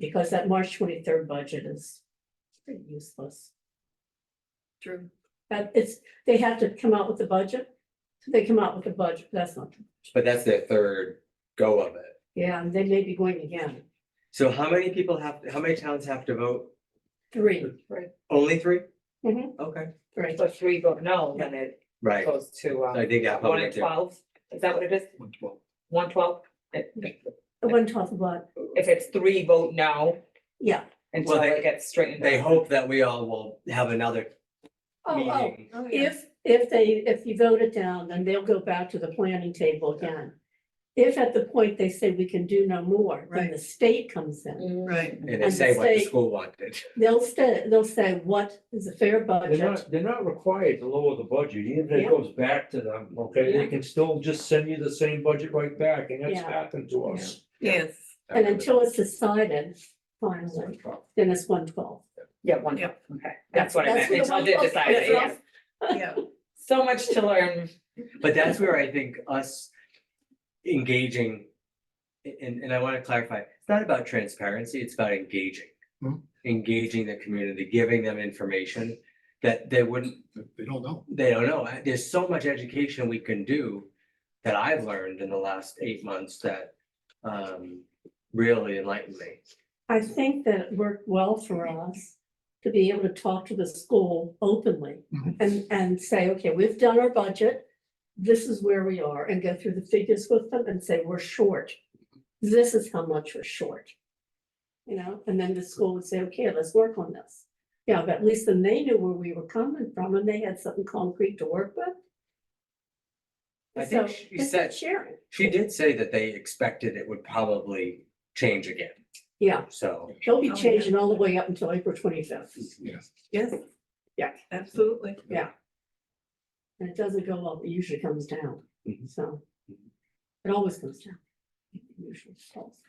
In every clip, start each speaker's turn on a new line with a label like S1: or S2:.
S1: Because that March twenty-third budget is pretty useless.
S2: True.
S1: That it's, they have to come out with the budget. So They come out with the budget, but that's not,
S3: But that's their third go of it.
S1: yeah, and they may be going again.
S3: So how many people have, how many towns have to vote?
S1: Three,
S3: Only 3
S1: Mhm.
S3: Okay,
S1: right.
S4: So three vote no, then it
S3: right.
S4: goes to,
S3: So I
S4: um,
S3: think that
S4: one
S3: probably.
S4: and twelve, is that what it is? One twelve? If
S1: One twelfth of what?
S4: if it's three vote no,
S1: Yeah.
S4: until
S3: Well, they-
S4: it gets straightened.
S3: They
S4: out.
S3: hope that we all will have another
S1: Oh, oh,
S3: meeting.
S1: if, if they, if you vote it down, then they'll go back to the planning table again. If at the point they say we can do no more, then the
S2: Right.
S1: state comes in.
S2: Right.
S3: And they
S1: and
S3: say what the
S1: say-
S3: school wanted.
S1: They'll stay, they'll say, what is a fair
S5: They're
S1: budget?
S5: not, they're not required to lower the budget, even if
S1: Yeah.
S5: it goes back to them, okay,
S1: Yeah.
S5: they can still just send you the same budget right back, and that's
S1: Yeah.
S5: happened to us.
S2: Yes.
S1: And until it's decided, finally, then it's one twelve.
S4: Yeah, one, okay,
S2: Yep.
S4: that's what I meant,
S1: That's what
S4: until
S1: the
S4: they
S1: one-
S4: decide,
S1: that's
S4: yeah.
S1: what-
S2: Yeah.
S4: So much to learn.
S3: But that's where I think us engaging. And and I want to clarify, it's not about transparency, it's about engaging.
S6: Mhm.
S3: Engaging the community, giving them information that they wouldn't,
S6: They don't know.
S3: they don't know. There's so much education we can do. That I've learned in the last eight months that um really enlightened me.
S1: I think that it worked well for us to be able to talk to the school openly
S6: Mhm.
S1: and, and say, okay, we've done our budget. This is where we are and go through the figures with them and say, we're short. This is how much we're short. You know, and then the school would say, okay, let's work on this. Yeah, but at least then they knew where we were coming from and they had something concrete to work with.
S3: I think
S1: So,
S3: she
S1: it's
S3: said-
S1: Sharing,
S3: She did say that they expected it would probably change again,
S1: yeah,
S3: so.
S1: they'll be
S2: Oh, yeah.
S1: changing all the way up until April twenty-fifth.
S2: Yes.
S1: Yeah.
S2: Absolutely.
S1: And it doesn't go up, it usually comes down,
S3: Mhm.
S1: so. It always comes down. It usually falls.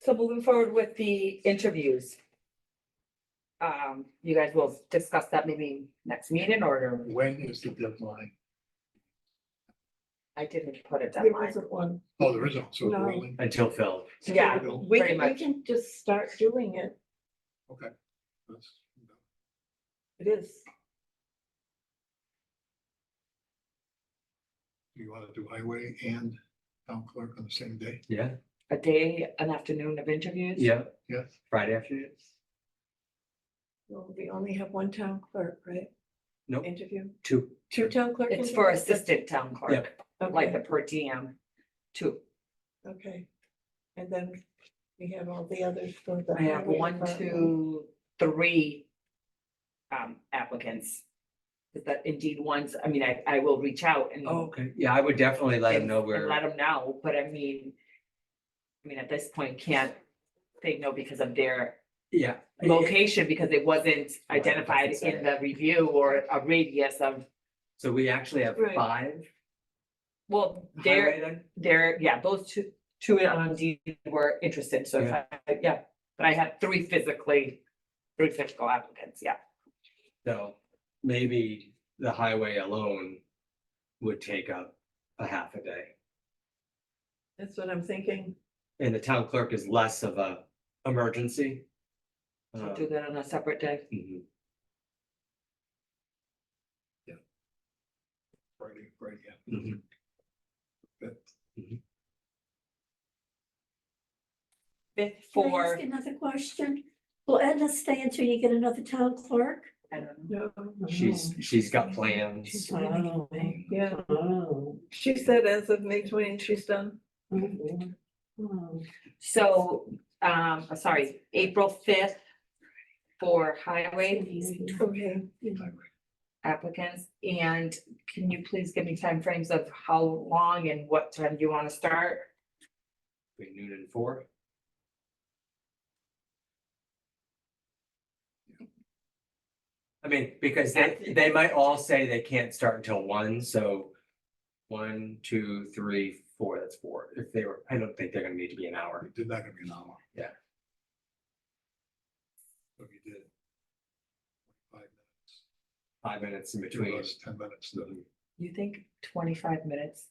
S4: So moving forward with the interviews. Um, you guys will discuss that maybe next meeting or
S6: When is the deadline?
S4: I didn't put a
S2: There
S4: deadline.
S2: wasn't one.
S6: Oh, there isn't, so it's
S2: No.
S6: rolling.
S3: Until Phil,
S4: Yeah,
S2: We
S4: Very
S2: can, we
S4: much.
S2: can just start doing it.
S6: That's-
S2: It is.
S6: You wanna do highway and town clerk on the same day?
S3: yeah,
S4: a day, an afternoon of interviews.
S3: yeah,
S6: Yes.
S3: Friday afternoon.
S2: Well, We only have one town clerk, right?
S3: Nope.
S2: Interview,
S3: Two.
S2: two town clerk.
S4: It's for
S2: interviews?
S4: assistant town clerk, like the
S2: Okay,
S4: per diem too.
S2: okay. And then we have all the others for the.
S4: I have
S2: highway
S4: one,
S2: department.
S4: two, three um applicants. Is that indeed ones, I mean, I I will reach out and
S3: Oh, Okay, yeah, I would definitely let him
S4: and-
S3: know
S4: and Let
S3: where,
S4: them know, but I mean. I mean, at this point, can't they know because of their
S3: yeah.
S4: location, because it wasn't
S3: Right,
S4: identified
S3: doesn't say.
S4: in the review or a radius of,
S3: So we actually have
S2: Right.
S3: five
S4: well, they're,
S3: highway then?
S4: they're, yeah, those two, two on D were interested, so, if
S3: Yeah.
S4: I- yeah. But I had three physically, three physical applicants, yeah.
S3: So maybe the highway alone would take up a half a day.
S2: That's what I'm thinking.
S3: And the town clerk is less of a emergency.
S4: So
S3: Uh,
S4: do that on a separate day.
S3: mhm.
S6: Friday, Friday, yeah.
S3: Mhm.
S4: Fifth
S1: Can I
S4: for,
S1: ask another question? Will Edna stay until you get another town clerk?
S4: I don't know,
S2: No.
S3: She's, she's got
S2: She's
S3: plans.
S2: leaving.
S1: Oh.
S2: Yeah,
S1: Oh.
S2: she said as of May twentieth, she's done.
S1: mhm, oh.
S4: so, um, I'm sorry, April fifth for highway
S2: Okay.
S6: Highway.
S4: applicants, and can you please give me timeframes of how long and what time you want to start?
S3: Between noon and four. I mean, because they, they might all say they can't start until one, so. One, two, three, four, that's four. If they were, I don't think they're gonna need to be an hour.
S6: We Did that gonna be an hour?
S3: Yeah.
S6: So you did. Five minutes.
S3: five minutes in
S6: Two of
S3: between.
S6: us, ten minutes, then
S4: You think twenty-five minutes?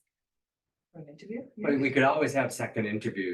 S2: for an interview.
S3: But we could always have second interviews.